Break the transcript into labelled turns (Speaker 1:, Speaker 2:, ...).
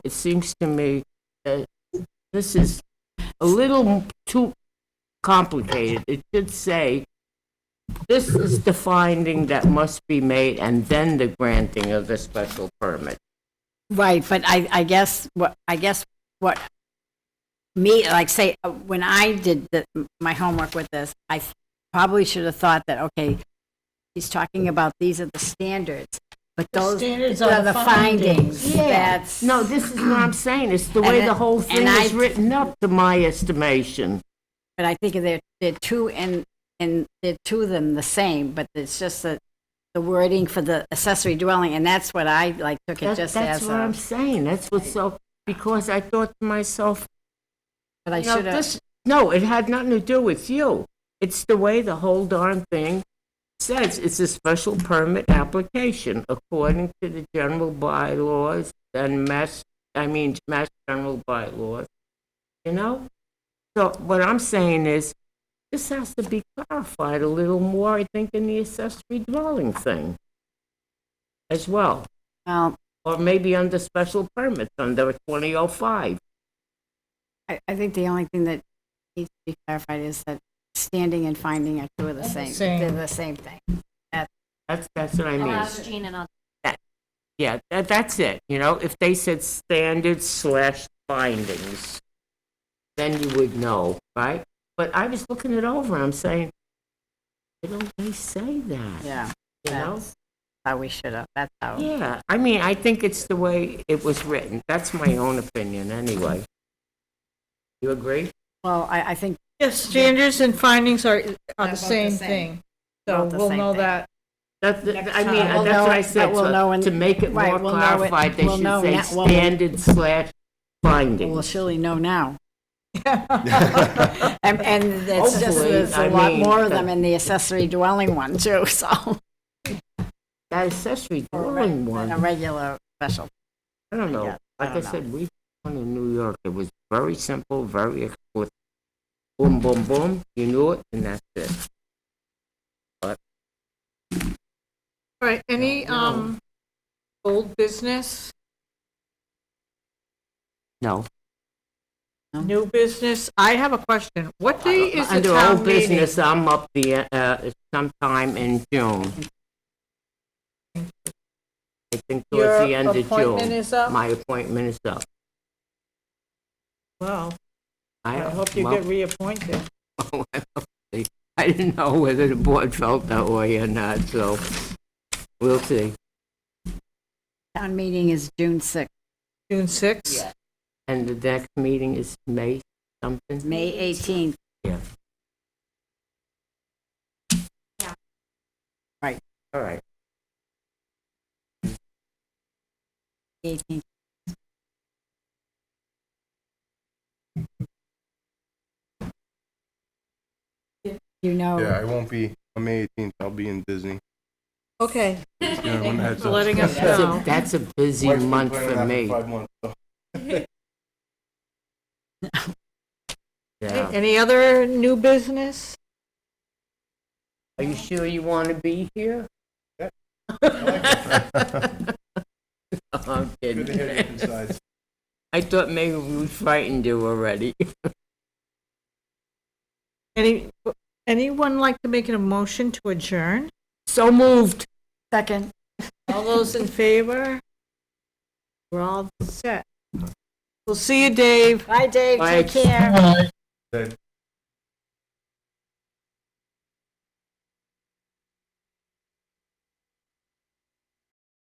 Speaker 1: it seems to me that this is a little too complicated. It should say, this is the finding that must be made, and then the granting of the special permit.
Speaker 2: Right, but I, I guess, what, I guess what, me, like, say, uh, when I did the, my homework with this, I th- probably should have thought that, okay, he's talking about these are the standards, but those
Speaker 3: standards
Speaker 2: are the findings. That's,
Speaker 1: No, this is what I'm saying, it's the way
Speaker 2: And
Speaker 1: the
Speaker 2: it-
Speaker 1: whole thing
Speaker 2: and I-
Speaker 1: is written up, to my estimation.
Speaker 2: but I think they're, they're two, and, and they're two of them the same, but it's just the, the wording for the accessory dwelling, and that's what I, like, took it
Speaker 1: That-
Speaker 2: just
Speaker 1: That's
Speaker 2: as
Speaker 1: what I'm
Speaker 2: a,
Speaker 1: saying, that's what's so, because I thought to myself,
Speaker 2: but I
Speaker 1: You know,
Speaker 2: should have,
Speaker 1: this- No, it had nothing to do with you. It's the way the whole darn thing says. It's a special permit application according to the general bylaws and mass, I mean, mass general bylaws, you know? So what I'm saying is, this has to be clarified a little more, I think, in the accessory dwelling thing as well,
Speaker 2: well,
Speaker 1: or maybe under special permits, under 2005.
Speaker 2: I, I think the only thing that needs to be clarified is that standing and finding are two of the same, they're
Speaker 3: same.
Speaker 2: the same thing.
Speaker 1: That's, that's what I mean.
Speaker 4: ask Jean and I'll
Speaker 1: Yeah, that, that's it, you know, if they said standards slash findings, then you would know, right? But I was looking it over, I'm saying, they don't really say that,
Speaker 2: Yeah,
Speaker 1: you know?
Speaker 2: that's how we should have, that's how.
Speaker 1: Yeah, I mean, I think it's the way it was written, that's my own opinion, anyway. You agree?
Speaker 2: Well, I, I think,
Speaker 3: Yes, standards and findings are, are the
Speaker 2: both the
Speaker 3: same
Speaker 2: same.
Speaker 3: thing.
Speaker 2: They're
Speaker 3: So
Speaker 2: both the
Speaker 3: we'll
Speaker 2: same
Speaker 3: know
Speaker 2: thing.
Speaker 3: that.
Speaker 1: That, that- I mean,
Speaker 2: time. We'll
Speaker 1: that's
Speaker 2: know
Speaker 1: what I
Speaker 2: it,
Speaker 1: said,
Speaker 2: but we'll know
Speaker 1: so
Speaker 2: when-
Speaker 1: to make it more
Speaker 2: right, we'll know it-
Speaker 1: clarified, they
Speaker 2: we'll
Speaker 1: should
Speaker 2: know
Speaker 1: say
Speaker 2: now- well, we-
Speaker 1: standard slash
Speaker 2: we'll
Speaker 1: findings.
Speaker 2: surely know now. And, and it's just,
Speaker 1: Hopefully,
Speaker 2: there's
Speaker 1: I
Speaker 2: a lot
Speaker 1: mean,
Speaker 2: more of
Speaker 1: that-
Speaker 2: them in the accessory dwelling one too, so.
Speaker 1: That accessory
Speaker 2: Or re-
Speaker 1: dwelling one.
Speaker 2: than A regular special.
Speaker 1: I don't know.
Speaker 2: Yeah, I
Speaker 1: Like I
Speaker 2: don't know.
Speaker 1: said, we won in New York. It was very simple, very explicit. Boom, boom, boom. You knew it, and that's it.
Speaker 3: All right, any,
Speaker 1: No.
Speaker 3: um, old business,
Speaker 1: No.
Speaker 3: new business? I have a question. What day is the
Speaker 1: Under
Speaker 3: town
Speaker 1: old
Speaker 3: meeting?
Speaker 1: business, I'm up the, uh, sometime in June. I think towards the end of June.
Speaker 3: Your appointment is up?
Speaker 1: My appointment is up.
Speaker 3: Well, I hope you
Speaker 1: well,
Speaker 3: get reappointed.
Speaker 1: I didn't know whether the board felt that way or not, so we'll see.
Speaker 2: Town meeting is June 6th,
Speaker 3: June sixth?
Speaker 1: And the next meeting is May something?
Speaker 2: May 18th.
Speaker 1: All right.
Speaker 2: 18th. You know,
Speaker 5: Yeah, I won't be, on May 18th, I'll be in Disney.
Speaker 3: Okay,
Speaker 5: Yeah,
Speaker 3: thank
Speaker 5: one
Speaker 3: you
Speaker 5: heads
Speaker 3: for
Speaker 5: up.
Speaker 3: letting us
Speaker 1: That's a-
Speaker 3: know.
Speaker 1: That's a busy
Speaker 5: Wife's been
Speaker 1: month
Speaker 5: planning
Speaker 1: for
Speaker 5: that
Speaker 1: me.
Speaker 5: five months, so.
Speaker 1: Yeah.
Speaker 3: Any other new business?
Speaker 1: Are you sure you want to be here? I'm kidding.
Speaker 5: Good to hear different sides.
Speaker 1: I thought maybe we frightened you already.
Speaker 3: Any, anyone like to make a motion to adjourn?
Speaker 1: So moved.
Speaker 2: second.
Speaker 3: All those in favor? We're all set. We'll see you, Dave.
Speaker 2: Bye, Dave.
Speaker 1: Bye.
Speaker 2: Take care.
Speaker 5: That-